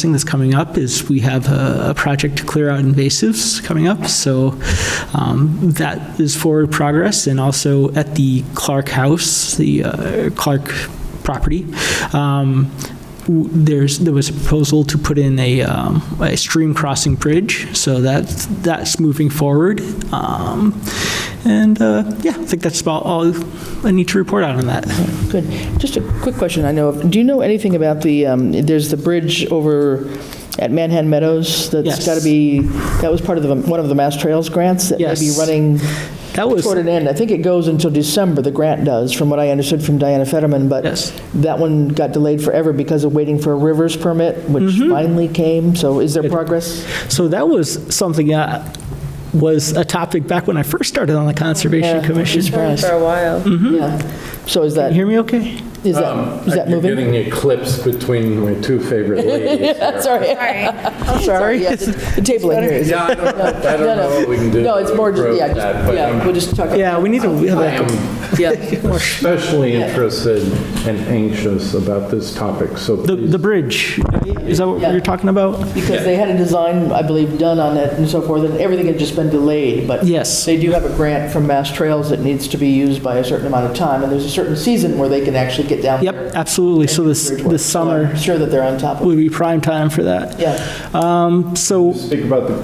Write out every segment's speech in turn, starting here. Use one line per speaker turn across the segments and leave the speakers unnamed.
thing that's coming up is we have a, a project to clear out invasives coming up, so um, that is forward progress. And also at the Clark House, the uh, Clark property, um, w- there's there was a proposal to put in a, um, a stream crossing bridge, so that that's moving forward. Um, and uh, yeah, I think that's about all I need to report out on that.
Good. Just a quick question I know of. Do you know anything about the, um, there's the bridge over at Manhattan Meadows
Yes.
that's got to be, that was part of the, one of the Mass Trails grants that may be
Yes.
running
That was-
toward an end. I think it goes until December, the grant does, from what I understood from Diana Fetterman, but
Yes.
that one got delayed forever because of waiting for a rivers permit, which
Mm-hmm.
finally came. So is there progress?
So that was something that was a topic back when I first started on the Conservation
Yeah.
Commission. Mm-hmm. Can
Surprised.
For a while.
Yeah. So is
you
that,
hear me okay?
is that, is that
You're
moving?
Um, getting eclipsed between my two favorite ladies. here.
Sorry. I'm sorry. Yeah, The the table in here is.
Yeah, I don't I
No,
don't know what we can do.
No, it's
to
more, just
improve
yeah,
that,
just-
but
yeah,
I'm-
we'll just talk.
Yeah, we need to have
I
that.
am
Yeah.
especially interested and anxious about this topic, so
The,
please.
the bridge, is that what
Yeah.
you're talking about?
Because they had a design, I believe, done on it and so forth, and everything had just been delayed, but.
Yes.
They do have a grant from Mass Trails that needs to be used by a certain amount of time, and there's a certain season where they can actually get down
Yep,
there.
absolutely. So this, this
So I'm
summer
Sure that they're on top of it,
would be prime time for that.
yeah.
Um, So
Speak about the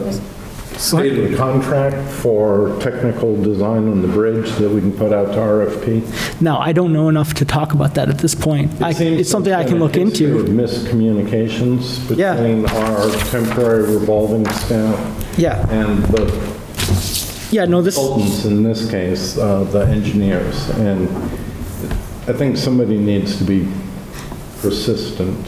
state of the contract for technical design on the bridge that we can put out to RFP.
now, I don't know enough to talk about that at this point. I-
It seems
It's something I
there's
can
been a
look
history
into.
of Miscommunications
Yeah.
between our temporary revolving staff
Yeah,
and the
yeah, no, this,
consultants in this case, uh, the engineers, and I think somebody needs to be persistent.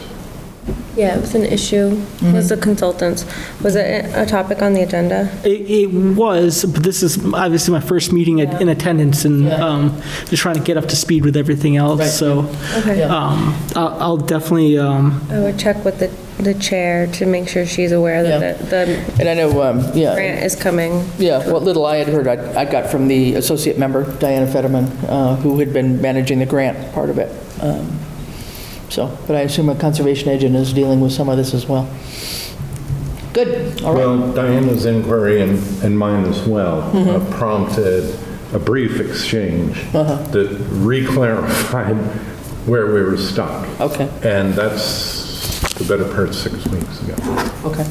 Yeah, it was an issue,
Mm-hmm.
was the consultants. Was it a topic on the agenda?
It, it was, but this is obviously my first meeting at- in attendance and um, just trying to get up to speed with everything else, so
Okay.
um, I'll I'll definitely, um,
I would check with the, the chair to make sure she's aware
Yeah.
that the- the
And I know, um, yeah,
grant is coming.
yeah, what little I had heard, I I got from the associate member, Diana Fetterman, uh, who had been managing the grant part of it. Um, So, but I assume a conservation agent is dealing with some of this as well. Good, all right.
Well, Diana's inquiry and and mine as well uh,
Mm-hmm.
prompted a brief exchange
Uh-huh.
that reclarified where we were stuck.
Okay.
And that's the better part of six weeks ago.
Okay.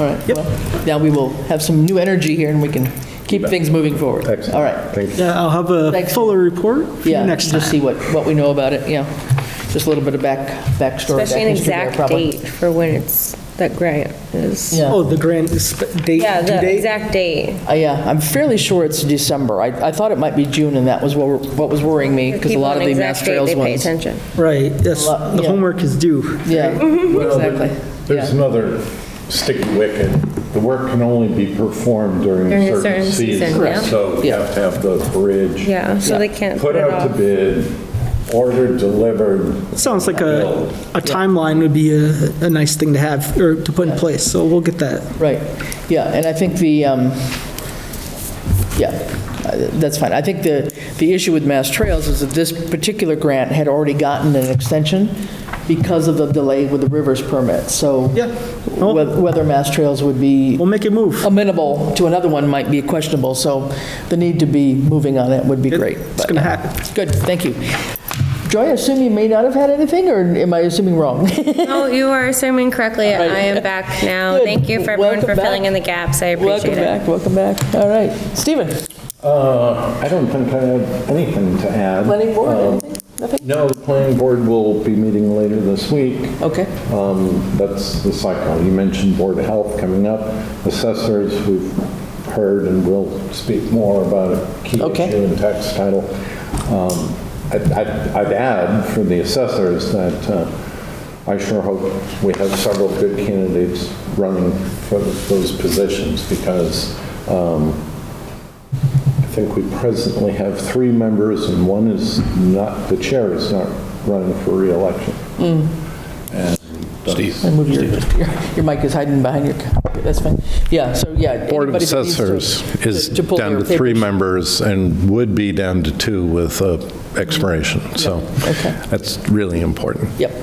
All right. Well, Now we will have some new energy here and we can keep things moving forward.
Excellent.
All right.
Thank you.
yeah, I'll have a
Thanks.
fuller report for you
Yeah,
next time.
just see what, what we know about it, yeah. Just a little bit of back, backstory.
Especially an
back history there,
exact
probably.
date for when it's, that grant is.
Yeah.
Oh, the grant is sp- date,
Yeah,
due
the
date?
exact date.
Uh, Yeah, I'm fairly sure it's December. I, I thought it might be June and that was what, were- what was worrying me because a
People
lot of
on
the
exact
Mass
date,
Trails ones.
They pay attention.
Right, yes,
Lo-
the
yeah.
homework is due.
Yeah,
Well, there-
Exactly,
There's
yeah.
another sticky wicket. The work can only be performed during
During
a certain season.
yeah.
So you
Yeah.
have to have the bridge.
Yeah, so they can't
Put
put it
out to
off.
bid, ordered, delivered.
Sounds like a, a timeline would be a, a nice thing to have, or to put in place, so we'll get that.
right. Yeah, and I think the, um, yeah, uh, that's fine. I think the, the issue with Mass Trails is that this particular grant had already gotten an extension because of the delay with the rivers permit, so.
Yeah. Well-
whe- Whether Mass Trails would be
We'll make it move.
Oh, amenable to another one might be questionable, so the need to be moving on it would be great.
It's
but-
going to happen.
Good, thank you. Joy, I assume you may not have had anything, or am I assuming wrong?
No, you are assuming correctly. I am back now.
Good.
Thank you for everyone
Welcome
for filling
back.
in the gaps. I
Welcome
appreciate it.
back, welcome back. All right, Stephen?
Uh, I don't think I have anything to add.
Planning board,
Um,
anything? Nothing?
No, the planning board will be meeting later this week.
Okay,
Um, That's the cycle. You mentioned Board of Health coming up. Assessors, we've heard and will speak more about a key
Okay.
issue in tax title. Um, I'd I'd- I'd add for the assessors that uh, I sure hope we have several good candidates running for those positions because um, I think we presently have three members and one is not, the chair is not running for reelection. And that's-
and move your, your your mic is hiding behind your, c- that's fine. Yeah, so, yeah.
Board of
anybody that needs to-
Assessors is
to- to pull
down
their
to three
papers.
members and would be down to two with uh, expiration, so
okay.
that's really important.
Yep,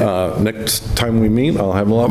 Uh, Next time we meet, I'll have a lot more.